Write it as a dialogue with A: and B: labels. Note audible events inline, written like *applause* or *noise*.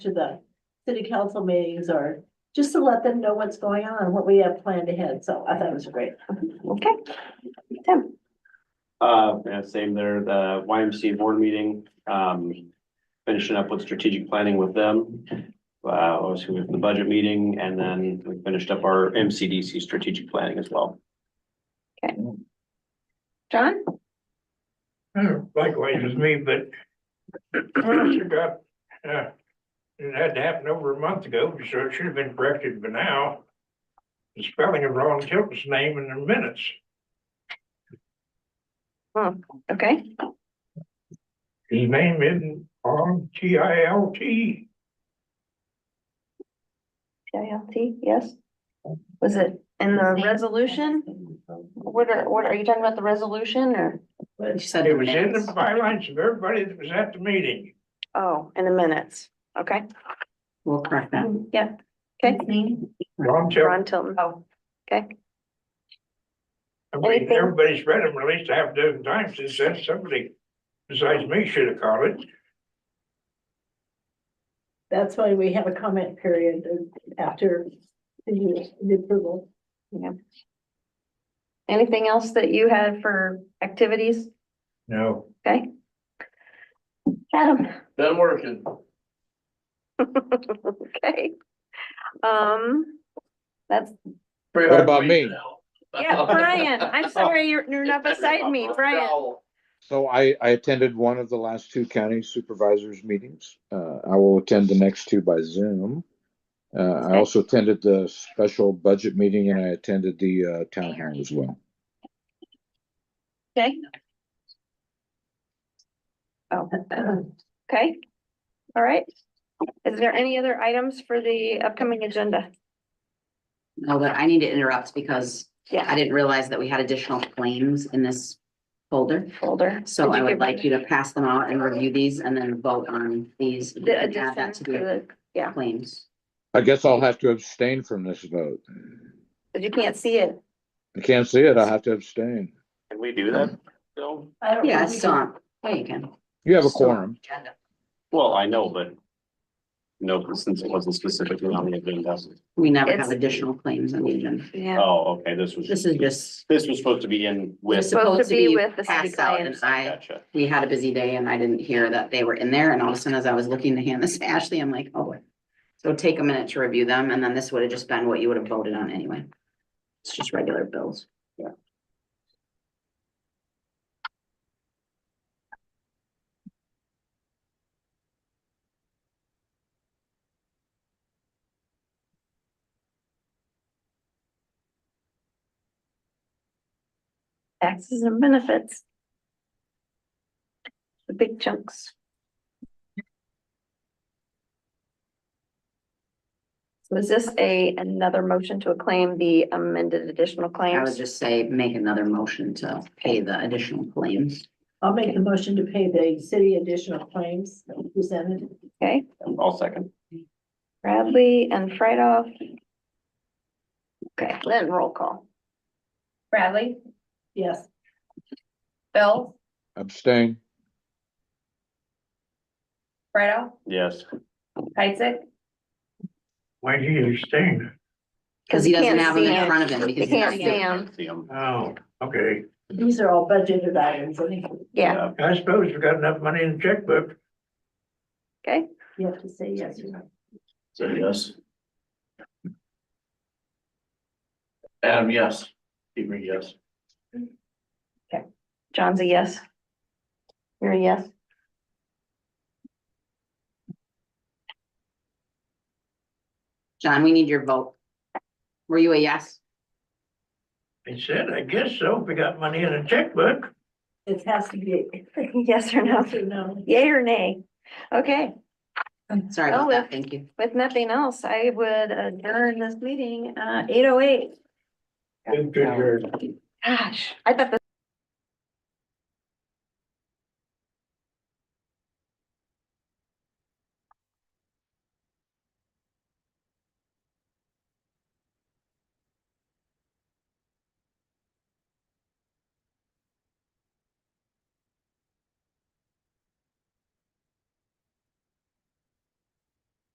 A: to the city council meetings or just to let them know what's going on, what we have planned ahead. So I thought it was great.
B: Okay. Tim,
C: Uh, yeah, same there, the YMCA board meeting, um, finishing up with strategic planning with them. Uh, obviously with the budget meeting and then we finished up our MCDC strategic planning as well.
B: John,
D: Uh, Likewise as me, but I forgot, uh, it had happened over a month ago, so it should have been corrected by now. The spelling of Ron Tilton's name in the minutes.
B: okay,
D: His name isn't on T I L T.
B: T I L T, yes. Was it in the resolution? What are, what, are you talking about the resolution or,
E: But she said.
D: It was in the bylines of everybody that was at the meeting.
B: oh, in the minutes, okay?
E: We'll correct that.
B: Yeah, okay,
D: Ron Tilton,
B: Ron Tilton,
E: Oh.
D: I mean,
B: anything-
D: everybody's read him at least a half dozen times since then, somebody besides me should have caught it.
A: That's why we have a comment period after the the
E: *clears throat*
A: approval.
B: anything else that you had for activities?
D: No.
B: Okay. Adam,
F: Been working.
B: *laughs* okay. Um, that's,
F: What
G: about me?
B: yeah, Brian, I'm sorry, you're, you're not beside me, Brian.
G: So I, I attended one of the last two county supervisors meetings. Uh, I will attend the next two by Zoom. Uh, I
B: Okay.
G: also attended the special budget meeting and I attended the, uh, town hall as well.
B: Okay. Oh, okay. All right. Is there any other items for the upcoming agenda?
E: No, but I need to interrupt because I
B: Yeah,
E: didn't realize that we had additional claims in this folder.
B: folder.
E: So
B: Did
E: I
B: you
E: would
B: give
E: like you to pass them out and review these and then vote on these. You
B: The
E: can Add
B: addition
E: that
B: to
E: to the
B: the, yeah,
E: claims.
G: I guess I'll have to abstain from this vote.
B: but you can't see it.
G: I can't see it. I'll have to abstain.
C: Can we do that? Bill?
A: I
B: Oh,
A: don't
E: Yeah,
A: think we can-
E: so, yeah, you can.
G: You have a
E: So-
G: quorum.
C: Well, I know, but no, since it wasn't specifically on the agenda.
E: We never have
B: It's-
E: additional claims on the agenda.
B: Yeah.
C: Oh, okay, this was,
E: This is just,
C: this was supposed to be in
E: we're
C: with.
E: supposed to be
B: with the city
E: passed out and
B: clients.
E: I,
C: Gotcha.
E: we had a busy day and I didn't hear that they were in there. And all of a sudden, as I was looking to hand this to Ashley, I'm like, oh boy. So take a minute to review them and then this would have just been what you would have voted on anyway. It's just regular bills.
B: Taxes and benefits. The big chunks. So is this a, another motion to acclaim the amended additional
E: I would
B: claims?
E: just say, make another motion to pay the additional claims.
A: I'll make the motion to pay the city additional claims that we presented.
B: Okay,
C: I'll second.
B: Bradley and Fredoff. Okay, then roll call.
H: Bradley,
A: Yes,
H: Bill,
G: Abstain.
H: Fredo,
C: Yes,
H: Isaac,
D: Why do you abstain?
E: Because he
B: you
E: doesn't
B: can't
E: have them
B: see
E: in
B: 'em.
E: front of him
B: You
E: because he's
B: can't
E: not
B: see
E: here.
B: them,
C: see 'em.
D: Oh, okay.
A: these are all budgeted items. I think
B: yeah,
D: I suppose we've got enough money in the checkbook.
B: okay,
A: you have to say yes or no.
F: So yes. Adam, yes. Hebron, yes.
B: John's a yes. You're a yes, *laughs*
E: John, we need your vote. Were you a yes?
D: I said, I guess so, if we got money in the checkbook.
A: It has to be
B: yes or no,
A: yes or no.
B: yay or nay? Okay,
E: Sorry
B: Oh,
E: about
B: if-
E: that. Thank you.
B: with nothing else, I would adjourn this meeting, uh, eight oh eight.
D: Good, good, good.
B: Gosh, I thought this.